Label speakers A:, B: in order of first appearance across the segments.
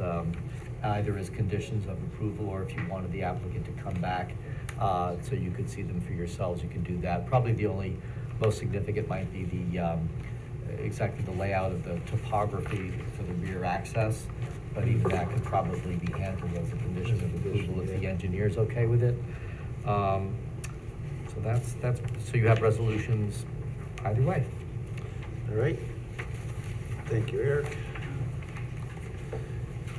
A: um, either as conditions of approval, or if you wanted the applicant to come back, uh, so you could see them for yourselves, you can do that. Probably the only most significant might be the, um, exactly the layout of the topography for the rear access, but even that could probably be handled as a condition of approval if the engineer's okay with it. Um, So that's, that's, so you have resolutions either way.
B: All right. Thank you, Eric.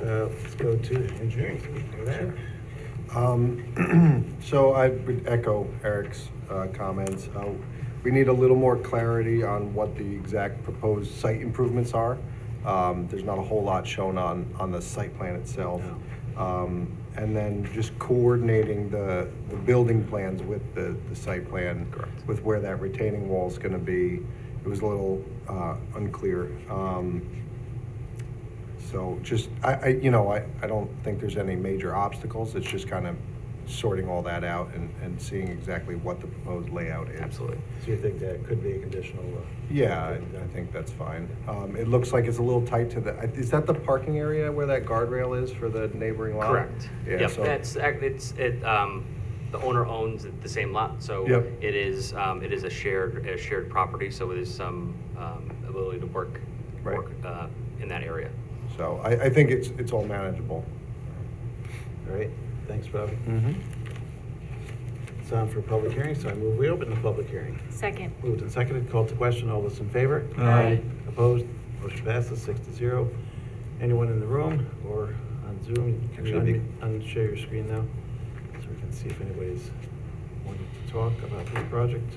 B: Uh, Let's go to engineering. Go there.
C: Um, So I would echo Eric's uh, comments. Uh, We need a little more clarity on what the exact proposed site improvements are. Um, There's not a whole lot shown on, on the site plan itself. Um, And then just coordinating the, the building plans with the, the site plan.
B: Correct.
C: With where that retaining wall is going to be. It was a little uh, unclear. Um, so just, I, I, you know, I, I don't think there's any major obstacles, it's just kind of sorting all that out and, and seeing exactly what the proposed layout is.
D: Absolutely.
B: So you think that could be a conditional? uh,
C: Yeah, I I think that's fine. Um, it looks like it's a little tight to the, is that the parking area where that guardrail is for the neighboring lot?
D: Correct.
C: Yeah,
D: Yep,
C: so.
D: that's, ac- it's, it, um, the owner owns the same lot, so
C: Yep.
D: it is, um, it is a shared, a shared property, so there's some, um, ability to work,
C: Right.
D: work, uh, in that area.
C: So I, I think it's, it's all manageable.
B: All right, thanks, Rob.
C: Mm-hmm.
B: It's on for public hearing, so I move we open the public hearing.
E: Second.
B: Moved and seconded, called to question, all those in favor?
E: Aye.
B: Opposed? Motion passes six to zero. Anyone in the room or on Zoom? Can you
F: Actually, be-
B: unmute- unshare your screen now? So we can see if anybody's wanting to talk about this project.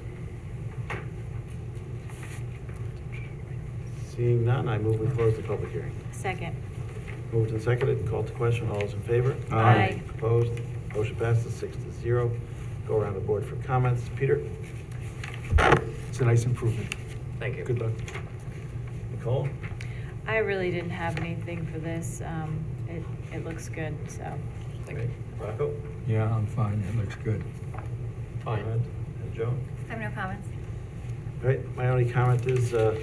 B: Seeing none, I move we close the public hearing.
E: Second.
B: Moved and seconded, called to question, all those in favor?
E: Aye. Aye.
B: Opposed? Motion passes six to zero. Go around the board for comments. Peter?
F: It's a nice improvement.
D: Thank you.
F: Good luck.
B: Nicole?
E: I really didn't have anything for this. Um, it, it looks good, so.
D: Thank you.
B: Rocco?
F: Yeah, I'm fine. It looks good.
D: Fine.
B: Ahmed, And Joan?
G: I have no comments.
B: All right, my only comment is, uh,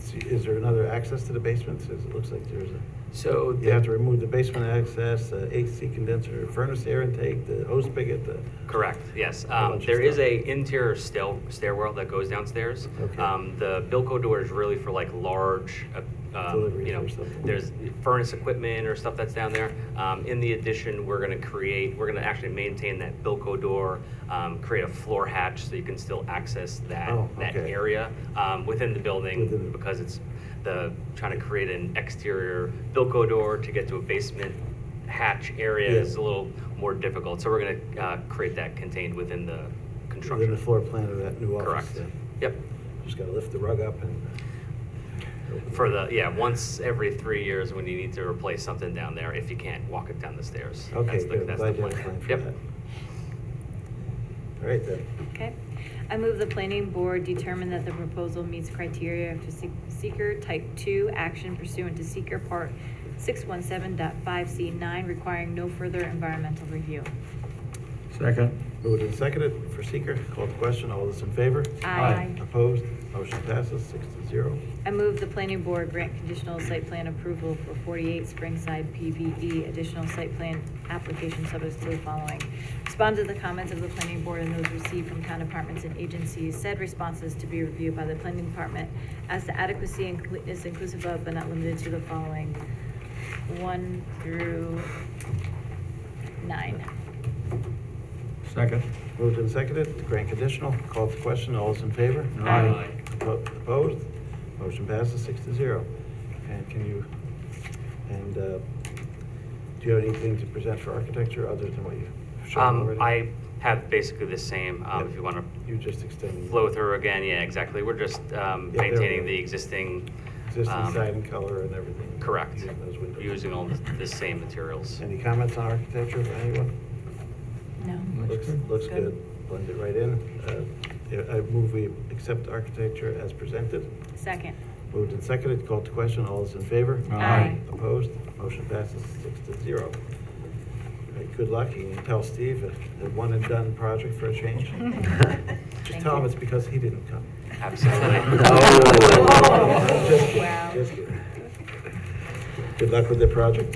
B: see, is there another access to the basement? Since it looks like there's a,
D: So.
B: you have to
D: the-
B: remove the basement access, uh, AC condenser, furnace air intake, the hose spigot, the.
D: Correct, yes.
B: A
D: Um,
B: bunch of
D: There is
B: stuff.
D: a interior stair stairwell that goes downstairs.
B: Okay.
D: Um, The Bilco door is really for like large, uh, um,
B: Deliveries
D: you know,
B: or something.
D: there's furnace equipment or stuff that's down there. Um, In the addition, we're going to create, we're going to actually maintain that Bilco door, um, create a floor hatch so you can still access that,
B: Oh,
D: that
B: okay.
D: area um, within the
B: Within
D: building
B: the-
D: because it's the, trying to create an exterior Bilco door to get to a basement hatch area
B: Yeah.
D: is a little little more difficult, so we're gonna uh, create that contained within the
B: Within the
D: construction.
B: floor plan of that new office.
D: Correct.
B: then.
D: Yep,
B: Just gotta lift the rug up and.
D: for the, yeah, once every three years when you need to replace something down there, if you can't walk it down the stairs.
B: Okay,
D: That's the-
B: good,
D: that's
B: glad
D: the
B: you have a plan for
D: Yep.
B: that. All right, then.
E: Okay. I move the planning board determine that the proposal meets criteria for se- seeker type two action pursuant to seeker part six one seven dot five C nine requiring no further environmental review.
F: Second.
B: Moved and seconded for seeker, called to question, all those in favor?
E: Aye. Aye.
B: Opposed, motion passes six to zero.
E: I move the planning board grant conditional site plan approval for 48 Springside PVE additional site plan application subject to the following. Respond to the comments of the planning board and those received from town departments and agencies. Said responses to be reviewed by the planning department as to adequacy and cl- is inclusive of but not limited to the following. One through nine.
F: Second.
B: Moved and seconded to grant conditional, called to question, all those in favor?
F: Aye. Aye.
B: Oppo- Opposed, motion passes six to zero. And can you, and, uh, do you have anything to present for architecture other than what you've shown
D: Um,
B: already?
D: I have basically the same, um,
B: Yep.
D: if you wanna
B: You just extended.
D: flow through again, yeah, exactly. We're just um,
B: Yeah, there we
D: maintaining
B: go.
D: the existing.
B: Existing
D: um,
B: siding color and everything.
D: Correct,
B: Using those windows.
D: using all the the same materials.
B: Any comments on architecture from anyone?
E: No.
B: Looks, looks good, blend it right in. Uh, yeah, I move we accept architecture as presented.
E: Second.
B: Moved and seconded, called to question, all those in favor?
F: Aye.
E: Aye.
B: Opposed, motion passes six to zero. All right, Good luck, you can tell Steve a- a one and done project for a change. Just
E: Thank
B: tell him
E: you.
B: it's because he didn't come. Oh.
D: Absolutely.
B: Just kidding,
E: Oh. Wow.
B: just kidding. Good luck with the project.